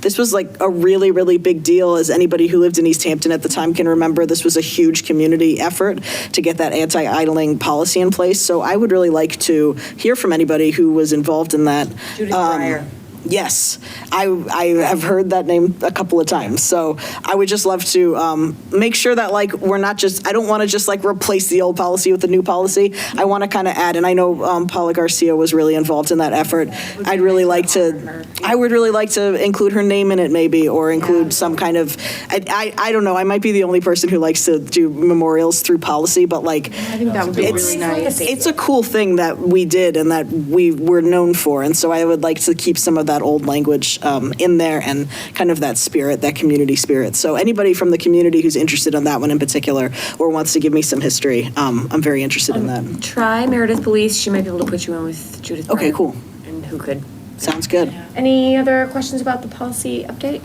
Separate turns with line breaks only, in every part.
This was like a really, really big deal, as anybody who lived in East Hampton at the time can remember. This was a huge community effort to get that anti-idling policy in place. So I would really like to hear from anybody who was involved in that.
Judith
Um,
Breyer.
Yes, I, I have heard that name a couple of times, so I would just love to um, make sure that, like, we're not just, I don't want to just, like, replace the old policy with the new policy. I want to kind of add, and I know um, Paula Garcia was really involved in that effort. I'd really like to, I would really like to include her name in it maybe, or include some kind of, I, I I don't know, I might be the only person who likes to do memorials through policy, but like,
think that would be
it's,
really nice.
it's a cool thing that we did and that we were known for. And so I would like to keep some of that old language um, in there and kind of that spirit, that community spirit. So anybody from the community who's interested in that one in particular or wants to give me some history, um, I'm very interested in that.
Try Meredith Police, she might be able to put you in with Judith.
Okay,
Breyer,
cool.
And who could.
Sounds good.
Any other questions about the policy update?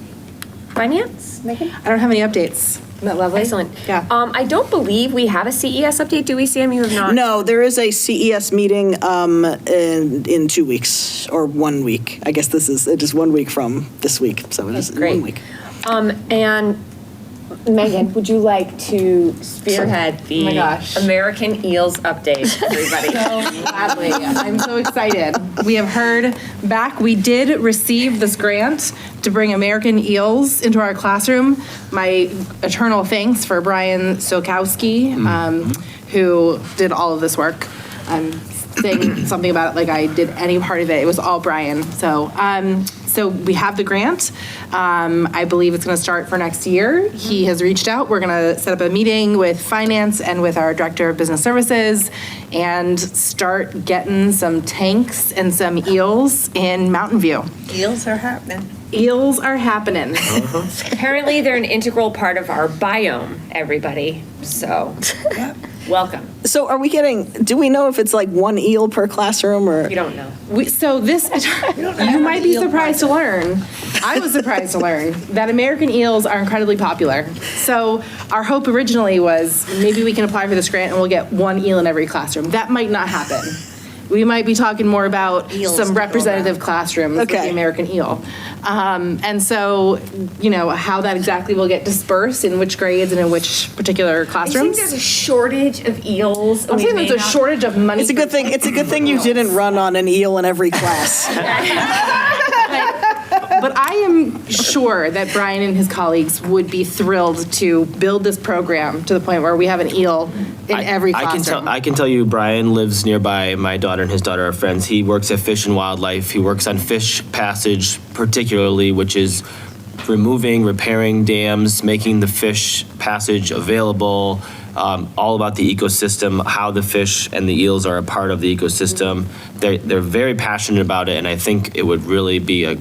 Finance, Megan?
I don't have any updates. Isn't that lovely?
Excellent.
Yeah.
Um, I don't believe we have a CES update, do we, Sam? You have not?
No, there is a CES meeting um, in, in two weeks or one week. I guess this is, it is one week from this week. So it is
Great.
one week.
Um, and Megan, would you like to spearhead the
my gosh.
American Eels update, everybody?
Gladly. I'm so excited. We have heard back, we did receive this grant to bring American eels into our classroom. My eternal thanks for Brian Sokowski, um, who did all of this work. I'm saying something about it like I did any part of it. It was all Brian. So, um, so we have the grant. Um, I believe it's going to start for next year. He has reached out. We're going to set up a meeting with finance and with our director of business services and start getting some tanks and some eels in Mountain View.
Deals are happening.
Eels are happening.
Apparently, they're an integral part of our biome, everybody, so, welcome.
So are we getting, do we know if it's like one eel per classroom or?
You don't know.
We, so this, you might be surprised to learn. I was surprised to learn that American eels are incredibly popular. So our hope originally was maybe we can apply for this grant and we'll get one eel in every classroom. That might not happen. We might be talking more about
Eels to
some
go
representative classrooms with
Okay.
the American eel. Um, and so, you know, how that exactly will get dispersed in which grades and in which particular
I think
classrums.
there's a shortage of eels.
I'm saying there's a shortage of money.
It's a good thing. It's a good thing you didn't run on an eel in every class.
But I am sure that Brian and his colleagues would be thrilled to build this program to the point where we have an eel in every
I can
classroom.
tell. I can tell you, Brian lives nearby. My daughter and his daughter are friends. He works at Fish and Wildlife. He works on fish passage, particularly, which is removing, repairing dams, making the fish passage available. Um, all about the ecosystem, how the fish and the eels are a part of the ecosystem. They're, they're very passionate about it, and I think it would really be a.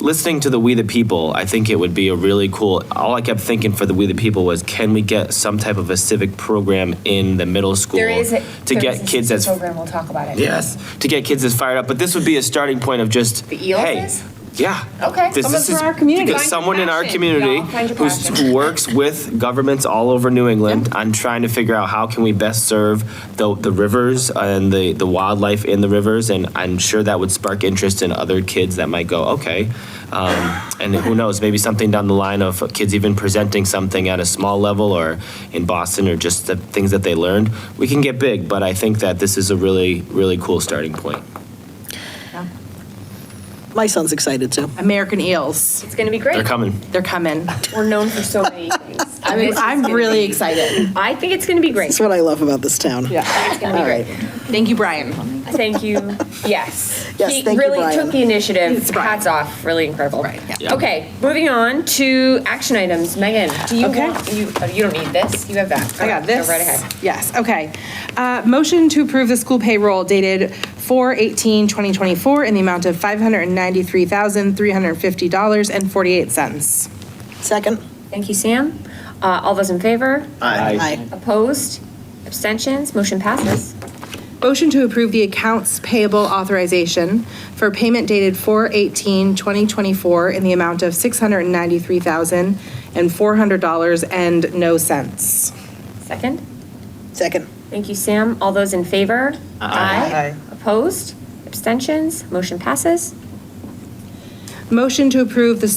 Listening to the We the People, I think it would be a really cool. All I kept thinking for the We the People was, can we get some type of a civic program in the middle school
There is a,
to
there
get
is a
kids
civics
as
program. We'll talk about it.
yes to get kids as fired up. But this would be a starting point of just
The eels
Hey,
is?
yeah.
Okay.
This,
Someone
this
for
is
our community.
because
Find
someone in our
passion,
community
y'all. Find your
who's-
passion.
who works with governments all over New England on trying to figure out how can we best serve the, the rivers and the, the wildlife in the rivers. And I'm sure that would spark interest in other kids that might go, okay. Um, and who knows, maybe something down the line of kids even presenting something at a small level or in Boston or just the things that they learned. We can get big, but I think that this is a really, really cool starting point.
My son's excited too.
American eels,
It's gonna be great.
They're coming.
they're coming.
We're known for so many things.
I mean, I'm really excited.
I think it's gonna be great.
That's what I love about this town. Yeah.
It's gonna be great.
Thank you, Brian.
Thank you. Yes.
Yes,
He
thank you,
really
Brian.
took the initiative.
It's Brian.
Hats off. Really incredible. Right.
Yeah.
Okay, moving on to action items. Megan, do you
Okay.
want, you, oh, you don't need this. You have that.
I got this.
Go right ahead.
Yes, okay. Uh, Motion to approve the school payroll dated 4/18/2024 in the amount of $593,350.48.
Second?
Thank you, Sam. Uh, all those in favor?
Aye.
Opposed? Abstentions? Motion passes.
Motion to approve the accounts payable authorization for payment dated 4/18/2024 in the amount of $693,400 and no cents.
Second.
Second.
Thank you, Sam. All those in favor? Aye. Opposed? Abstentions? Motion passes.
Motion to approve the